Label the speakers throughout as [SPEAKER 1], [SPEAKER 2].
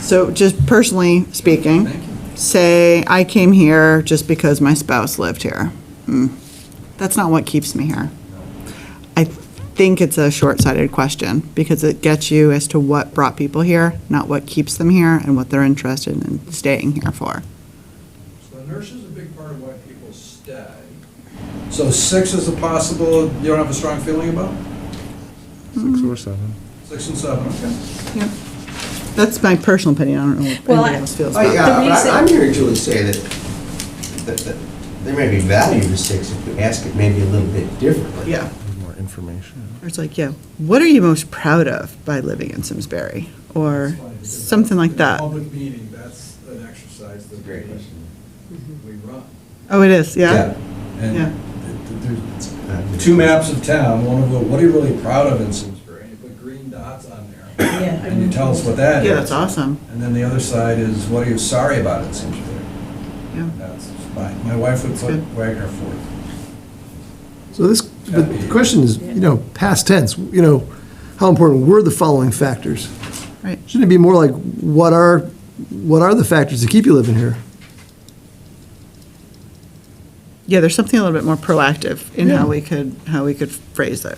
[SPEAKER 1] So just personally speaking,
[SPEAKER 2] Thank you.
[SPEAKER 1] say I came here just because my spouse lived here. Hmm. That's not what keeps me here. I think it's a short-sighted question because it gets you as to what brought people here, not what keeps them here and what they're interested in staying here for.
[SPEAKER 2] So the nurse is a big part of why people stay. So six is a possible, you don't have a strong feeling about?
[SPEAKER 3] Six or seven.
[SPEAKER 2] Six and seven, okay.
[SPEAKER 1] That's my personal opinion. I don't know what
[SPEAKER 4] Well,
[SPEAKER 1] anybody
[SPEAKER 4] I-
[SPEAKER 1] else feels
[SPEAKER 5] Oh,
[SPEAKER 1] about
[SPEAKER 5] yeah,
[SPEAKER 1] that.
[SPEAKER 4] The
[SPEAKER 5] but
[SPEAKER 4] reason-
[SPEAKER 5] I- I'm hearing Julie say that, that, that there may be value to six if we ask it maybe a little bit differently.
[SPEAKER 1] Yeah.
[SPEAKER 3] More information.
[SPEAKER 1] It's like, yeah, what are you most proud of by living in Simsbury? Or
[SPEAKER 2] That's why we do that.
[SPEAKER 1] something like that.
[SPEAKER 2] Public meeting, that's an exercise that
[SPEAKER 5] That's a great
[SPEAKER 2] we,
[SPEAKER 5] question.
[SPEAKER 2] we run.
[SPEAKER 1] Oh, it is, yeah?
[SPEAKER 2] And
[SPEAKER 1] Yeah.
[SPEAKER 2] th- th- there's
[SPEAKER 5] Uh,
[SPEAKER 2] two maps of town, one of them, what are you really proud of in Simsbury? And you put green dots on there,
[SPEAKER 4] Yeah.
[SPEAKER 2] and you tell us what that is.
[SPEAKER 1] Yeah, that's awesome.
[SPEAKER 2] And then the other side is, what are you sorry about in Simsbury?
[SPEAKER 1] Yeah.
[SPEAKER 2] That's, my, my wife would put
[SPEAKER 1] Good.
[SPEAKER 2] Wagner fourth.
[SPEAKER 6] So this, but the question is, you know, past tense, you know, how important were the following factors?
[SPEAKER 1] Right.
[SPEAKER 6] Shouldn't it be more like, what are, what are the factors that keep you living here?
[SPEAKER 1] Yeah, there's something a little bit more proactive in
[SPEAKER 6] Yeah.
[SPEAKER 1] how we could, how we could phrase it.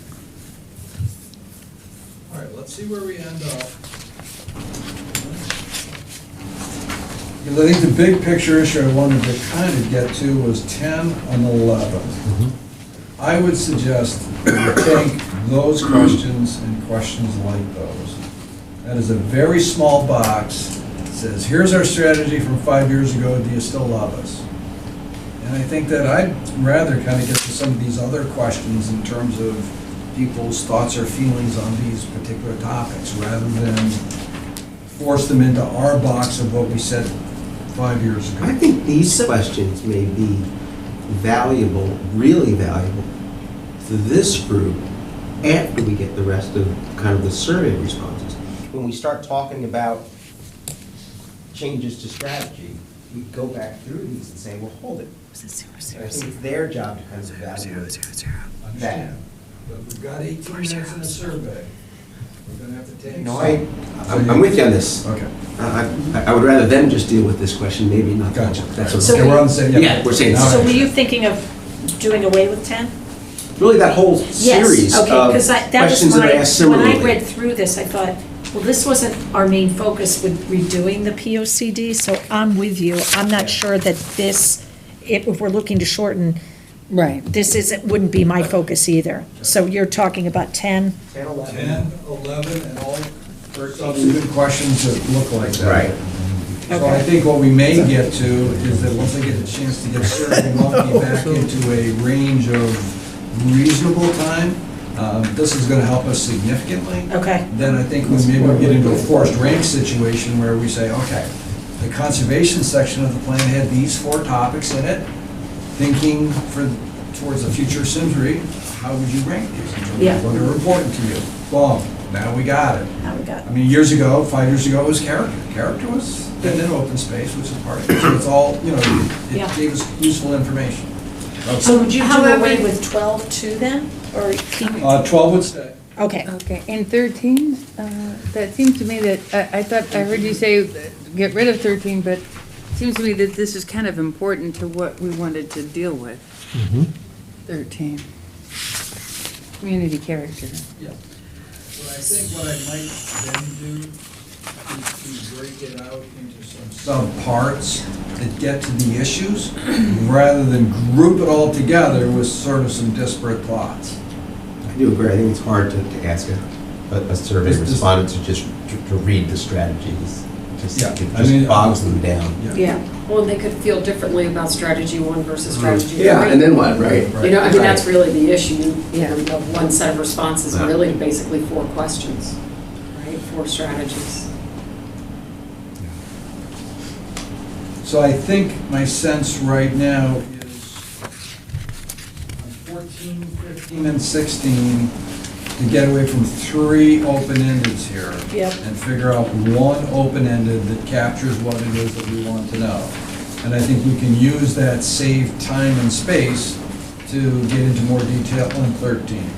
[SPEAKER 2] All right, let's see where we end up. Because I think the big picture issue I wanted to kind of get to was 10 and 11. I would suggest you take those questions and questions like those. That is a very small box, that says, here's our strategy from five years ago, do you still love us? And I think that I'd rather kind of get to some of these other questions in terms of people's thoughts or feelings on these particular topics, rather than force them into our box of what we said five years
[SPEAKER 5] I
[SPEAKER 2] ago.
[SPEAKER 5] think these questions may be valuable, really valuable, to this group after we get the rest of kind of the survey responses. When we start talking about changes to strategy, we go back through these and say, well, hold it. And I think it's their job to kind of evaluate that.
[SPEAKER 2] Understand? But we've got 18 minutes in the survey. We're going to have to take.
[SPEAKER 5] No, I, I'm I'm with you on this.
[SPEAKER 2] Okay.
[SPEAKER 5] I, I- I would rather them just deal with this question, maybe not.
[SPEAKER 2] Gotcha.
[SPEAKER 5] That's
[SPEAKER 2] So
[SPEAKER 5] okay.
[SPEAKER 2] we're on the same.
[SPEAKER 5] Yeah, we're saying-
[SPEAKER 2] All
[SPEAKER 4] So
[SPEAKER 2] right.
[SPEAKER 4] were you thinking of doing away with 10?
[SPEAKER 5] Really, that whole series
[SPEAKER 4] Yes,
[SPEAKER 5] of
[SPEAKER 4] okay, because that was
[SPEAKER 5] questions that I asked
[SPEAKER 4] my, when I read
[SPEAKER 5] similarly.
[SPEAKER 4] through this, I thought, well, this wasn't our main focus with redoing the P O C D, so I'm with you. I'm not sure that this, if if we're looking to shorten,
[SPEAKER 7] Right.
[SPEAKER 4] this isn't, wouldn't be my focus either. So you're talking about 10?
[SPEAKER 5] 10, 11.
[SPEAKER 2] 10, 11, and all subsequent questions that look like that.
[SPEAKER 5] Right.
[SPEAKER 2] So I think what we may get to is that once they get a chance to get survey monkey back into a range of reasonable time, um, this is going to help us significantly.
[SPEAKER 4] Okay.
[SPEAKER 2] Then I think we maybe we get into a forced rank situation where we say, okay, the conservation section of the plan had these four topics in it, thinking for, towards the future of Simsbury, how would you rank these in terms
[SPEAKER 4] Yeah.
[SPEAKER 2] of what are important to you? Boom, now we got it.
[SPEAKER 4] Now we got.
[SPEAKER 2] I mean, years ago, five years ago, it was character. Character was, and then open space, which is part of it. So it's all, you know,
[SPEAKER 4] Yeah.
[SPEAKER 2] it gave us useful information.
[SPEAKER 4] So would you do
[SPEAKER 7] However-
[SPEAKER 4] away with 12 too then, or keep,
[SPEAKER 2] Uh, 12 would stay.
[SPEAKER 4] okay.
[SPEAKER 7] Okay, and 13, uh, that seemed to me that, I I thought, I heard you say, uh, get rid of 13, but it seems to me that this is kind of important to what we wanted to deal with. 13. Community character.
[SPEAKER 2] Yeah. But I think what I might then do is to break it out into some sub-parts that get to the issues, rather than group it all together with sort of some disparate thoughts.
[SPEAKER 5] I do agree, I think it's hard to, to ask a, a a survey
[SPEAKER 2] Just- just-
[SPEAKER 5] respondent to just, to to read the strategies. Just-
[SPEAKER 2] Yeah,
[SPEAKER 5] It
[SPEAKER 2] I mean-
[SPEAKER 5] just bogs them down.
[SPEAKER 8] Yeah, well, they could feel differently about strategy one versus strategy three.
[SPEAKER 5] what, right?
[SPEAKER 8] You know, I mean, that's
[SPEAKER 5] Right.
[SPEAKER 8] really the issue. You
[SPEAKER 7] Yeah.
[SPEAKER 8] know, you have one set of responses
[SPEAKER 5] Yeah.
[SPEAKER 8] really to basically four questions, right? Four strategies.
[SPEAKER 2] So I think my sense right now is on 14, 15, and 16, to get away from three open-endeds here.
[SPEAKER 4] Yep.
[SPEAKER 2] And figure out one open-ended that captures what it is that we want to know. And I think we can use that saved time and space to get into more detail on 13.